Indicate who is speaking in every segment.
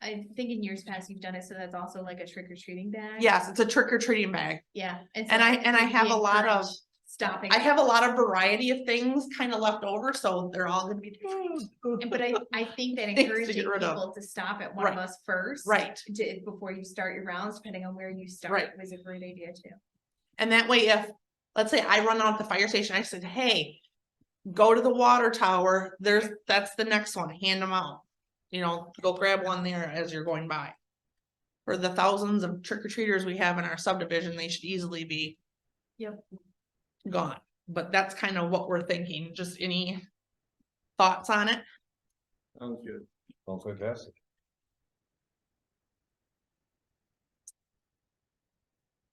Speaker 1: I think in years past you've done it, so that's also like a trick or treating bag.
Speaker 2: Yes, it's a trick or treating bag.
Speaker 1: Yeah. it's
Speaker 2: And I-
Speaker 1: like
Speaker 2: and I
Speaker 1: we
Speaker 2: have a lot of-
Speaker 1: encourage Stopping.
Speaker 2: I have a lot of variety of things kind of left over, so they're all gonna be.
Speaker 1: And But I, I think that
Speaker 2: Things to
Speaker 1: encouraging
Speaker 2: get rid of.
Speaker 1: people to stop at one of
Speaker 2: Right.
Speaker 1: us first.
Speaker 2: Right,
Speaker 1: to- before you start your rounds, depending on where you start,
Speaker 2: Right.
Speaker 1: was a great idea too.
Speaker 2: and that way if, let's say I run out at the fire station, I said, hey. Go to the water tower, there's, that's the next one, hand them out. You know, go grab one there as you're going by. For the thousands of trick or treaters we have in our subdivision, they should easily be.
Speaker 1: Yep.
Speaker 2: Gone, but that's kind of what we're thinking, just any. Thoughts on it?
Speaker 3: Sounds good. Sounds fantastic.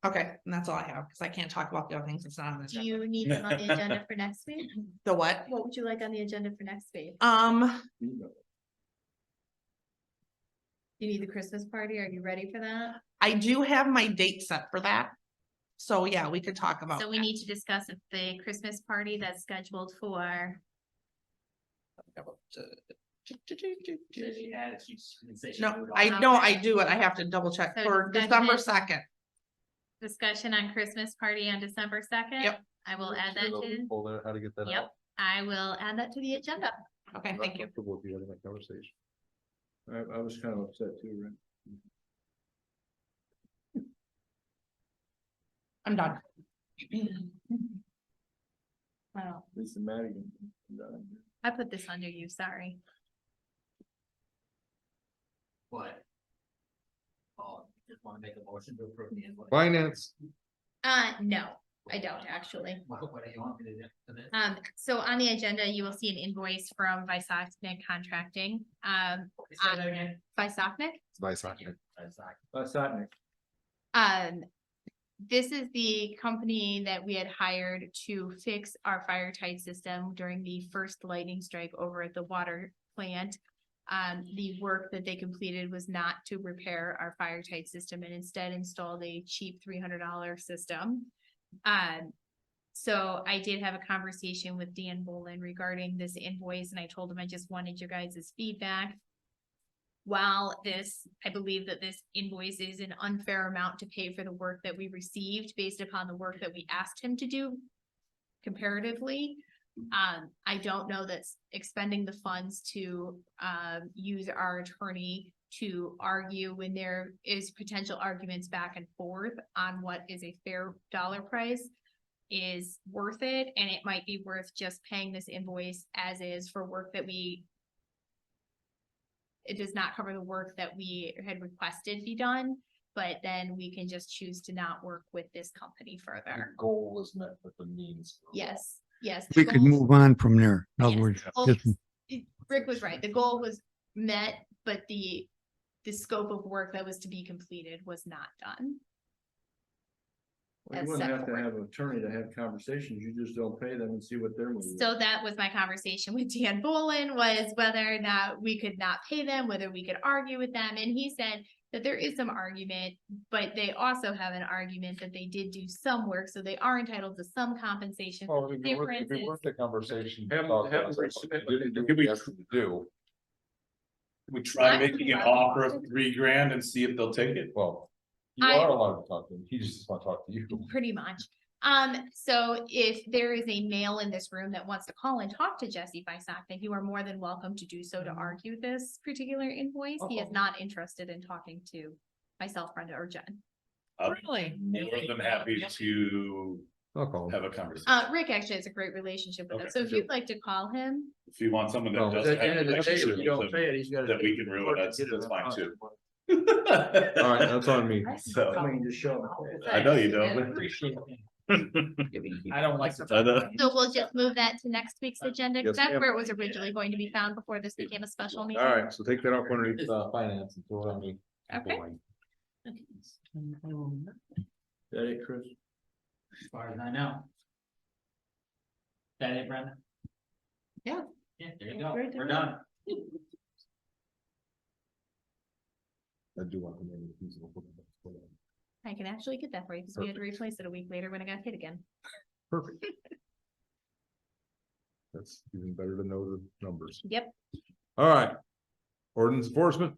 Speaker 2: Okay, and that's all I have, because I can't talk about the other things, it's not on the
Speaker 1: Do
Speaker 2: agenda.
Speaker 1: you need them on the agenda for next week?
Speaker 2: The what?
Speaker 1: What would you like on the agenda for next week?
Speaker 2: Um,
Speaker 1: Do you need the Christmas party? Are you ready for that?
Speaker 2: I do have my date set for that. So yeah, we could talk about.
Speaker 1: So we
Speaker 2: that.
Speaker 1: need to discuss if the Christmas party that's scheduled for,
Speaker 4: uh,
Speaker 2: No, I know, I do it. I have to double check
Speaker 1: So
Speaker 2: for
Speaker 1: second
Speaker 2: December
Speaker 1: it.
Speaker 2: second.
Speaker 1: discussion on Christmas party on December second?
Speaker 2: Yep.
Speaker 1: I will add that to,
Speaker 3: Pull there, how to get that
Speaker 1: Yep.
Speaker 3: out.
Speaker 1: I will add that to the agenda.
Speaker 2: Okay, thank you.
Speaker 3: Comfortable if you had that conversation. I, I was kind of upset too, right?
Speaker 2: I'm done.
Speaker 1: Wow,
Speaker 3: Lisa Madigan.
Speaker 1: I put this under you, sorry.
Speaker 5: What? Oh, just wanna make a motion to approve the invoice.
Speaker 3: Finance.
Speaker 1: Uh, no, I don't actually.
Speaker 5: What, what do you want me to do for this?
Speaker 1: Um, so on the agenda, you will see an invoice from Visacne Contracting, um,
Speaker 5: Say that again?
Speaker 1: Visacne.
Speaker 3: Vice
Speaker 5: That's not-
Speaker 1: Um, this is the company that we had hired to fix our fire tight system during the first lightning strike over at the water plant. Um, the work that they completed was not to repair our fire tight system and instead installed a cheap three hundred dollar system. Um, so I did have a conversation with Dan Bolin regarding this invoice and I told him I just wanted your guys' feedback while this, I believe that this invoice is an unfair amount to pay for the work that we received based upon the work that we asked him to do comparatively. Um, I don't know that s- expending the funds to, um, use our attorney to argue when there is potential arguments back and forth on what is a fair dollar price is worth it, and it might be worth just paying this invoice as is for work that we it does not cover the work that we had requested be done, but then we can just choose to not work with this company further.
Speaker 3: Goal was met with the means.
Speaker 1: Yes, yes. the
Speaker 6: We could
Speaker 1: goals-
Speaker 6: move on from there. In
Speaker 1: Yes.
Speaker 6: other words,
Speaker 1: Oh,
Speaker 6: just
Speaker 1: it- Rick was right. The goal was met, but the, the scope of work that was to be completed was not done.
Speaker 4: Well,
Speaker 1: as
Speaker 4: You wouldn't
Speaker 1: set
Speaker 4: have to
Speaker 1: forth.
Speaker 4: have an attorney to have conversations, you just don't pay them and see what they're. moving.
Speaker 1: So that was my conversation with Dan Bolin was whether or not we could not pay them, whether we could argue with them. And he said that there is some argument, but they also have an argument that they did do some work, so they are entitled to some compensation.
Speaker 3: Well, it'd be worth, it'd be
Speaker 1: Differences.
Speaker 3: worth the conversation.
Speaker 4: Have-
Speaker 3: about
Speaker 4: have
Speaker 3: that.
Speaker 4: them resubmit.
Speaker 3: Didn't do
Speaker 7: Can
Speaker 3: what
Speaker 7: we-
Speaker 3: you asked them to Do,
Speaker 7: We try making an offer of three grand and see if they'll take it.
Speaker 3: well, you
Speaker 1: I-
Speaker 3: are allowed to talk to him, he just doesn't want to talk to you.
Speaker 1: Pretty much. Um, so if there is a male in this room that wants to call and talk to Jesse Bisak, then you are more than welcome to do so
Speaker 3: Mm-hmm.
Speaker 1: to argue this particular invoice. He is
Speaker 2: Uh-oh.
Speaker 1: not interested in talking to myself, Brenda, or Jen.
Speaker 7: I'm
Speaker 2: Really?
Speaker 7: more than happy to
Speaker 3: I'll call him.
Speaker 7: have a conversation.
Speaker 1: Uh, Rick actually has a great relationship with
Speaker 7: Okay,
Speaker 1: us, so if
Speaker 7: sure.
Speaker 1: you'd like to call him,
Speaker 7: If you want someone
Speaker 3: Well,
Speaker 7: that
Speaker 3: at
Speaker 4: At
Speaker 7: doesn't.
Speaker 4: the
Speaker 7: have
Speaker 4: end of the day, if you don't
Speaker 7: relationships
Speaker 4: pay it, he's gotta.
Speaker 7: That we
Speaker 4: take
Speaker 7: can
Speaker 4: it
Speaker 7: ruin,
Speaker 4: to
Speaker 7: that's-
Speaker 4: get it
Speaker 7: that's fine,
Speaker 4: out.
Speaker 7: too.
Speaker 3: All right, that's on me.
Speaker 4: I
Speaker 7: So,
Speaker 4: mean, just show them.
Speaker 7: I know you don't.
Speaker 5: I don't like.
Speaker 7: I know.
Speaker 1: so we'll just move that to next week's agenda, because
Speaker 3: Mm-hmm. Uh, Yes,
Speaker 1: that's
Speaker 3: ma'am.
Speaker 1: where it was originally going to be found before this became a special meeting.
Speaker 3: All right, so take that off underneath, uh, finance and throw it on me.
Speaker 1: Okay.
Speaker 4: That it, Chris?
Speaker 5: As far as I know. That it, Brenda?
Speaker 2: Yeah.
Speaker 5: Yeah, there you go, we're done.
Speaker 3: I do want to name the feasible. book.
Speaker 1: I can actually get that for you, because we had to replace it a week later when I got hit again.
Speaker 3: Perfect. That's even better to know the numbers.
Speaker 1: Yep.
Speaker 3: All right. Ordinance enforcement,